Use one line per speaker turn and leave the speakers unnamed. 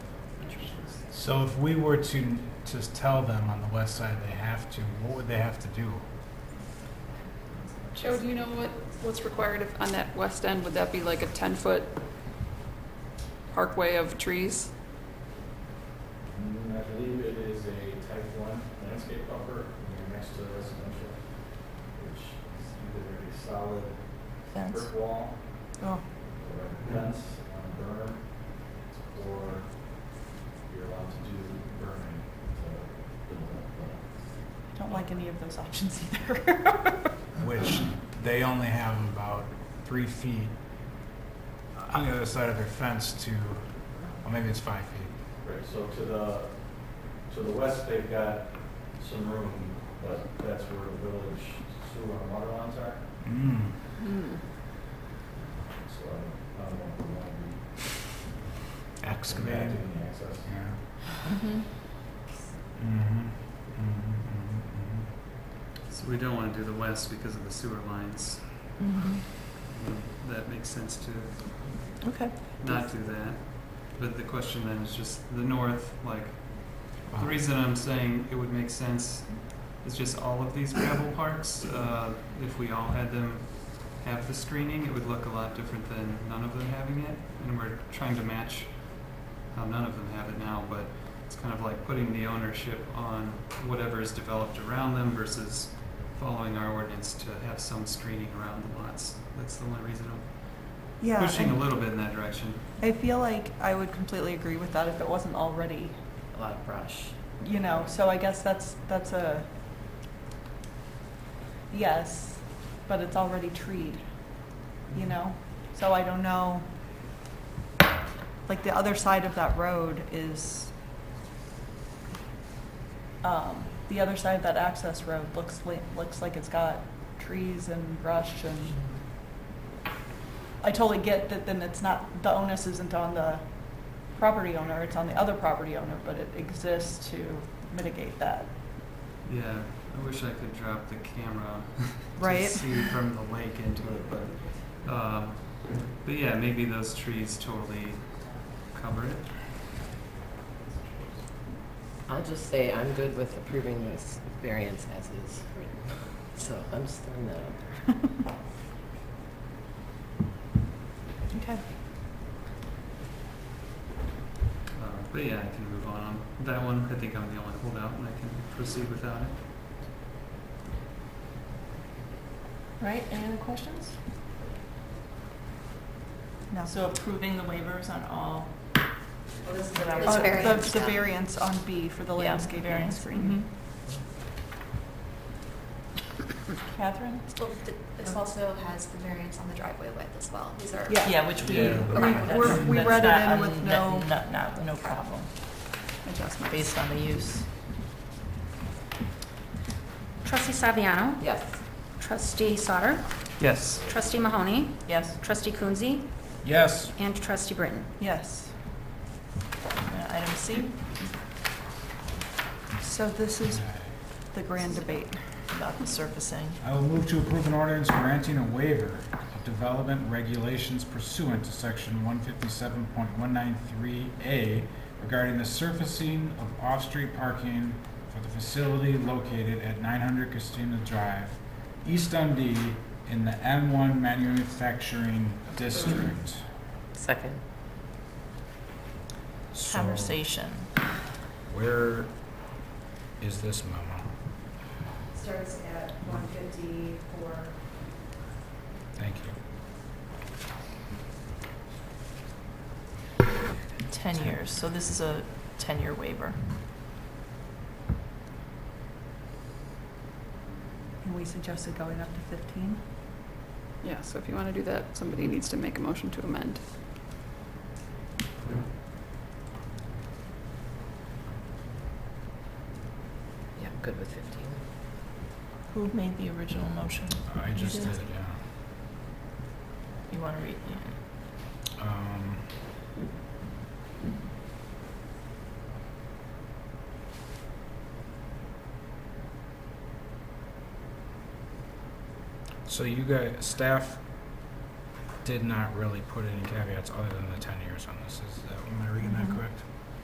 So if we were to just tell them on the west side they have to, what would they have to do?
Joe, do you know what, what's required of- on that west end? Would that be like a 10-foot parkway of trees?
Mm, I believe it is a type one landscape buffer, and you're next to residential, which is either a solid
Fence.
brick wall
Oh,
or a fence on a berm, or you're allowed to do burning to build up. uh,
I don't like any of those options either.
Which they only have about three feet on the other side of their fence to, well, maybe it's five feet.
Right, so to the, to the west, they've got some room, but that's where the village sewer and water lines are,
Mm.
Hmm.
so I don't- I don't know if we want to be
Excavated.
impacting the access.
Yeah.
Mm-hmm.
Mhm.
Mhm. Mhm,
So we don't want to do the west because of the sewer lines. That makes sense to
Okay.
not do that. But the question then is just the north, like,
mhm, mhm.
the reason I'm saying it would make sense is just all of these gravel parks, uh, if we all had them have the screening, it would look a lot different than none of them having it. And we're trying to match how none of them have it now, but it's kind of like putting the ownership on whatever is developed around them versus following our ordinance to have some screening around the lots. That's the only reason I'm
Yeah,
pushing a
and
little bit in that direction.
I feel like I would completely agree with that if it wasn't already,
a lot of brush.
you know, so I guess that's, that's a yes, but it's already treed, you know? So I don't know, like, the other side of that road is, um, the other side of that access road looks li- looks like it's got trees and brush and I totally get that then it's not, the onus isn't on the property owner, it's on the other property owner, but it exists to mitigate that.
Yeah, I wish I could drop the camera
Right.
to see from the lake into it, but um, but yeah, maybe those trees totally cover it.
I'll just say I'm good with approving this variance as is written. So I'm just throwing that out there.
Okay.
Uh, but yeah, I can move on on that one. I think I'm the only holdout, and I can proceed without it.
Right, any other questions? No.
So approving the waivers on all,
Uh,
This
the-
variance
The
now.
variance on B for the
Yeah,
landscaping and
variance.
screening.
Mm-hmm.
Catherine?
Well, th- This also has the variance on the driveway width as well. Oh, These are.
Yeah.
yeah, which we.
Yeah.
We- we're- we
that's
read it
not
in
un-
with
that-
no-
Not, not, no problem,
Adjustments.
based on the use.
Trustee Saviano,
Yes.
trustee Sauter,
Yes.
trustee Mahoney,
Yes,
trustee Coonsey,
Yes.
and trustee Britton.
Yes.
Uh, item C,
So this is the grand debate.
about the surfacing.
I will move to approve an ordinance granting a waiver of development regulations pursuant to section one fifty-seven point one nine three A regarding the surfacing of off-street parking for the facility located at nine hundred Christina Drive, East Dundee, in the M one manufacturing district.
Second.
So,
Conversation.
Where is this memo?
Starts at one fifty-four.
Thank you.
Ten years, so this is a ten-year waiver.
And we suggested going up to 15?
Yeah, so if you want to do that, somebody needs to make a motion to amend.
Yeah, I'm good with 15.
Who made the original motion?
I just
did.
did it, yeah.
You want to read? yeah.
Um, So you guys, staff did not really put any caveats other than the ten years on this, is that, am I reading that
Mhm.
Mm-hmm.
correct?